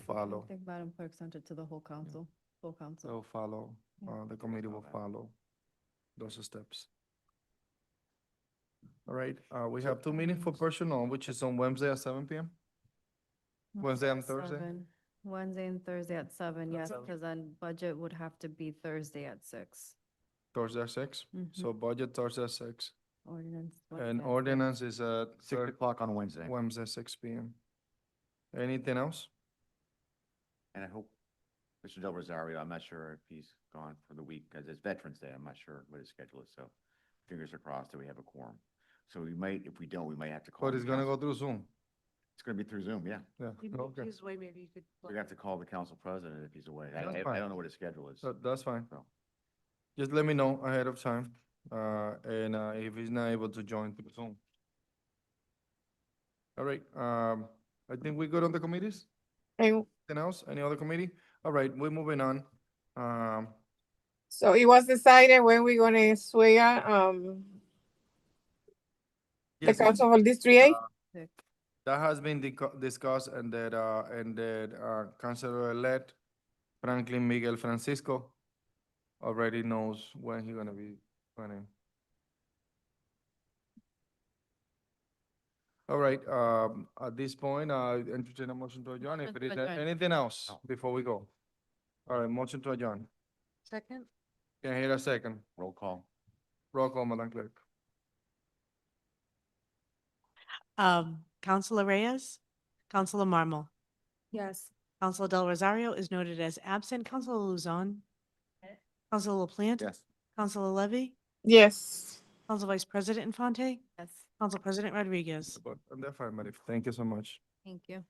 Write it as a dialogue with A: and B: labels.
A: follow. Oh,
B: I think Madam Clerk sent it to the whole council, full council.
A: They'll follow,
B: Yeah.
A: uh, the committee will
B: Follow.
A: follow those steps. All right, uh, we have two meetings for personnel, which is on Wednesday at seven PM. Wednesday and Thursday?
B: Seven. Wednesday and Thursday at seven,
A: At
B: yes,
A: seven.
B: because then budget would have to be Thursday at six.
A: Thursday at six, so budget Thursday at six,
B: Ordinance.
A: and
B: Mm-hmm. Wednesday.
A: ordinance is at
C: Six
A: thir-
C: o'clock on Wednesday,
A: Wednesday, six PM. Anything else?
C: and I hope Mr. Del Rosario, I'm not sure if he's gone for the week, because it's Veterans Day, I'm not sure what his schedule is, so fingers are crossed that we have a quorum. So we might, if we don't, we might have to call.
A: But
C: the
A: it's gonna go
C: council-
A: through Zoom,
C: It's gonna be through Zoom, yeah.
A: yeah, okay,
D: His way, maybe you could.
C: We're gonna have to call the council president if he's away. I,
A: That's
C: I- I
A: fine.
C: don't know what his schedule is.
A: so that's fine.
C: So.
A: Just let me know ahead of time, uh, and, uh, if he's not able to join through Zoom. All right, um, I think we good on the committees?
E: And
A: Anything else? Any other committee? All right, we're moving on. Um,
E: so it was decided when we're gonna swear, um, the
A: yes,
E: council of District Eight?
B: Six.
A: that has been dico- discussed and that, uh, and that, uh, Councilor-elect Franklin Miguel Francisco already knows when he gonna be running. All right, um, at this point, uh, entertain a motion to adjourn. If
B: Motion
A: it is
B: to adjourn.
A: anything else
C: No.
A: before we go. All right, motion to adjourn.
D: Second?
A: Can I hear a second?
C: Roll call.
A: Roll call, Madam Clerk.
F: Um, Counselor Reyes, Counselor Marmal,
D: Yes.
F: Counselor Del Rosario is noted as absent, Counselor Luzon, Counselor LaPlante,
C: Yes.
F: Counselor Levy,
E: Yes.
F: Counsel Vice President Infante,
B: Yes,
F: Counsel President Rodriguez.
A: But I'm definitely, thank you so much.
B: thank you.